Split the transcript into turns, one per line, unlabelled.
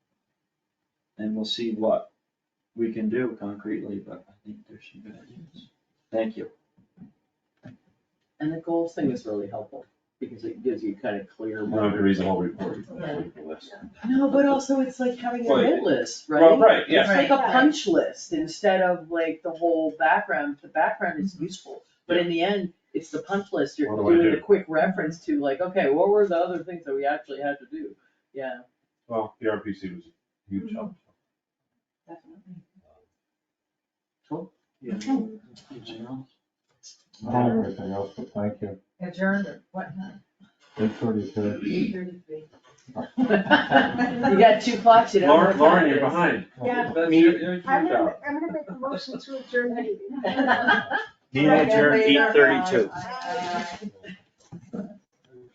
and we'll see what we can do concretely, but I think there's some good ideas. Thank you.
And the goals thing is really helpful, because it gives you kind of clear.
Not a reasonable report, but I think the list.
No, but also it's like having a
Well,
hit list, right?
Well, right,
It's
yeah,
like a
Right.
punch list instead of like the whole background, the background is useful, but in the end, it's the punch list, you're
Mm-hmm. What do I
doing
do?
a quick reference to like, okay, what were the other things that we actually had to do? Yeah.
well, the RPC was a huge help.
Definitely.
Yeah. Anything else?
Not everything else, but thank you.
Adjourned or what time?
Eight thirty-two.
Eight thirty-three.
You got two clocks, you don't
Lauren,
have time.
Lauren, you're behind.
Yeah.
That's your, your your
I'm
job.
gonna, I'm gonna make a motion to adjourn the meeting.
Meeting
adjourned
eight
8:32.